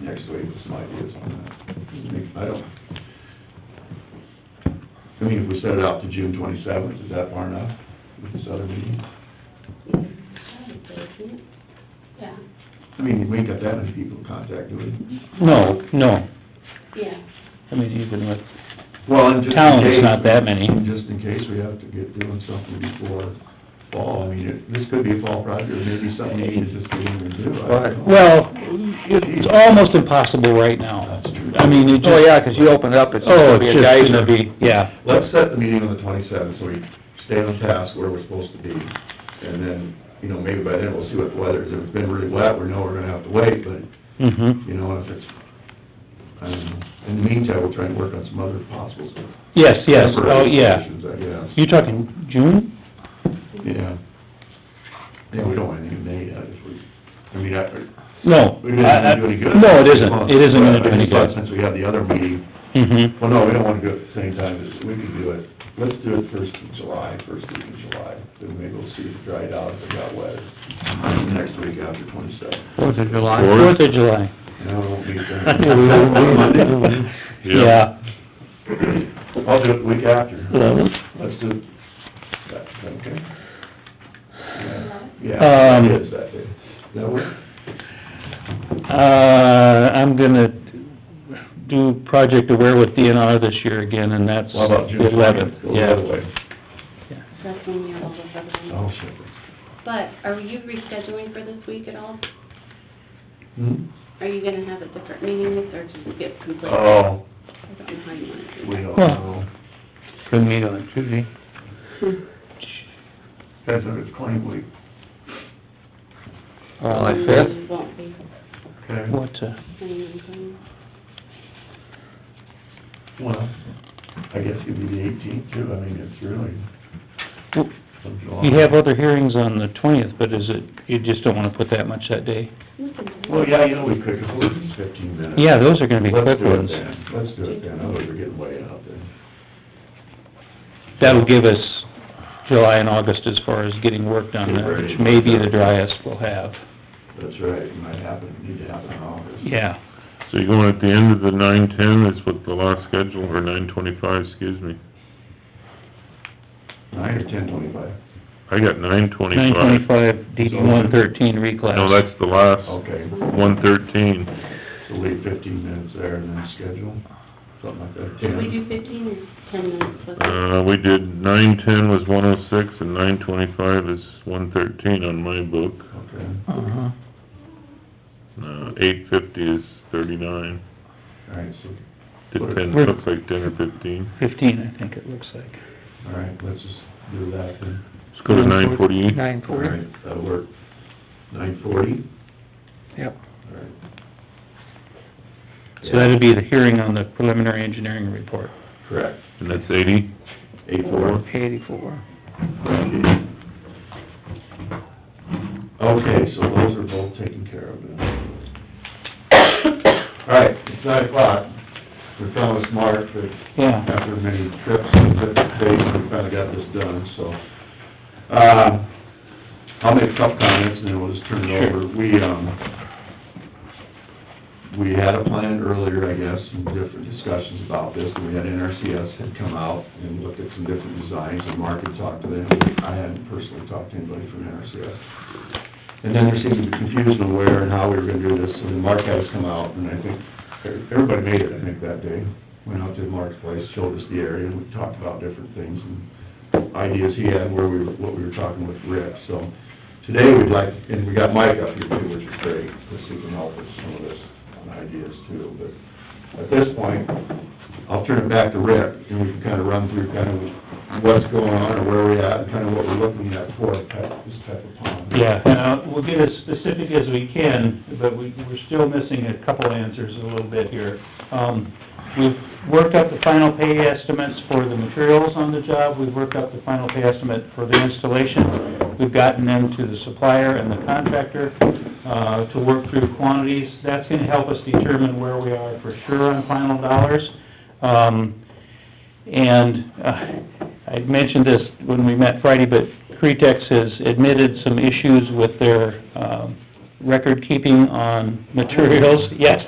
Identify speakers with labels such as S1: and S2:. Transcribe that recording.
S1: next week with some ideas on that. I don't, I mean, if we set it out to June twenty-seventh, is that far enough with this other meeting?
S2: Yeah,
S1: I mean, we ain't got that many people to contact, do we?
S3: No, no,
S2: yeah.
S3: I mean, even with,
S1: Well, and just in
S3: Town's
S1: case-
S3: not that many.
S1: Just in case we have to get doing something before fall, I mean, it- this could be a fall project, or maybe something we need to just get in and do. I don't know.
S3: well, it's almost impossible right now.
S1: That's true.
S3: I mean, it just...
S4: Oh, yeah, 'cause you open it up, it's just
S3: Oh,
S4: gonna be
S3: it's
S4: a
S3: just
S4: geyser.
S3: gonna be, yeah.
S1: Let's set the meeting on the twenty-seventh, so we stay on task where we're supposed to be. And then, you know, maybe by then we'll see what the weather is. If it's been really wet, we know we're gonna have to wait, but,
S3: Mm-hmm.
S1: you know, if it's, I don't know. In the meantime, we'll try and work on some other possible stuff.
S3: Yes, yes, oh,
S1: Temporary
S3: yeah.
S1: solutions, I guess.
S3: You're talking June?
S1: Yeah. Yeah, we don't want anything made out if we, I mean, I,
S3: No.
S1: we didn't
S3: I- I-
S1: do any good.
S3: No, it isn't, it isn't gonna do any
S1: But I just
S3: good.
S1: thought Since we have the other meeting,
S3: Mm-hmm.
S1: well, no, we don't wanna do it at the same time, we can do it, let's do it first of July, first week in July, then maybe we'll see if it dried out, if it got wet. Next week after twenty-seven.
S4: Fourth of July.
S3: Fourth of July.
S1: No, it won't be
S3: Yeah.
S1: then. I'll do it the week after. Let's do, that's okay. Yeah, Yeah,
S3: Um,
S1: it is that day. That work?
S3: Uh, I'm gonna do Project Aware with DNR this year again, and that's
S1: Well, about June
S3: the eleventh,
S1: twentieth, go the other
S3: yeah.
S1: way.
S2: That's when you're over February.
S1: Oh, shit.
S2: But are you rescheduling for this week at all?
S1: Hmm?
S2: Are you gonna have a different meeting this, or just get complete?
S1: Oh,
S2: I don't know how you wanna do
S1: we don't
S3: Well-
S1: know.
S4: Couldn't meet on Tuesday.
S2: that.
S1: That's if it's claim week,
S3: Uh,
S4: July fifth.
S2: Mm, Won't be,
S1: okay?
S3: What, uh,
S2: anything.
S1: Well, I guess it'd be the eighteenth too, I mean, it's really
S3: w-
S1: from July.
S3: you have other hearings on the twentieth, but is it, you just don't wanna put that much that day?
S2: We can do
S1: Well, yeah, you know, we could, go with fifteen minutes.
S3: Yeah, those are gonna be
S1: Let's
S3: quick
S1: do it
S3: ones.
S1: then, let's do it then, otherwise we're getting way out there.
S3: That'll give us July and August as far as getting work done,
S1: Get
S3: there,
S1: ready.
S3: which may be the driest we'll have,
S1: That's right, it might happen, need to happen in August.
S3: yeah.
S5: So you're going at the end of the nine-ten is what the last schedule, or nine-twenty-five, excuse me.
S1: Nine or ten twenty-five,
S5: I got
S3: Nine
S5: nine-twenty-five.
S3: twenty-five, DD one thirteen reclass.
S5: No, that's the last,
S1: okay,
S5: one-thirteen.
S1: so leave fifteen minutes there and then schedule, something like that,
S2: Should we
S1: ten.
S2: do fifteen or ten minutes with it?
S5: Uh, we did, nine-ten was one oh six, and nine-twenty-five is one-thirteen on my book.
S1: Okay,
S3: Uh-huh.
S5: Uh, eight-fifty is thirty-nine.
S1: all right, so,
S5: Did ten,
S3: We're-
S5: looks like ten or fifteen.
S3: Fifteen, I think it looks like.
S1: all right, let's just do that then.
S5: Let's go to nine forty-eight.
S4: Nine
S1: All
S4: forty,
S1: right, that'll work. Nine forty?
S4: yep.
S1: All right.
S3: So that'd be the hearing on the preliminary engineering report.
S1: Correct.
S5: And that's eighty?
S1: Eight four.
S4: Eighty-four.
S1: Okay, so those are both taken care of now. All right, it's nine o'clock. We promised Mark that
S3: Yeah.
S1: after many trips and different days, we finally got this done, so. Uh, I'll make a couple comments and then we'll just turn it over. We, um, we had a plan earlier, I guess, some different discussions about this, and we had NRCS had come out and looked at some different designs, and Mark had talked to them. I hadn't personally talked to anybody from NRCS. And then there seemed to be confusion on where and how we were gonna do this, and then Mark had us come out, and I think, everybody made it, I think, that day. Went out to Mark's place, showed us the area, and we talked about different things and ideas he had, where we, were- what we were talking with Rick, so. Today, we'd like, and we got Mike up here too, which is great, because he can help us some of this on ideas too, but at this point, I'll turn it back to Rick, and we can kind of run through kind of what's going on, or where we're at, and kind of what we're looking at for type- this type of pond.
S6: Yeah, and uh, we'll get as specific as we can, but we, we're still missing a couple answers a little bit here. Um, we've worked up the final pay estimates for the materials on the job, we've worked up the final pay estimate for the installation. We've gotten them to the supplier and the contractor, uh, to work through quantities. That's gonna help us determine where we are for sure on final dollars. Um, and uh, I mentioned this when we met Friday, but Cretex has admitted some issues with their um, record keeping on materials. Yes,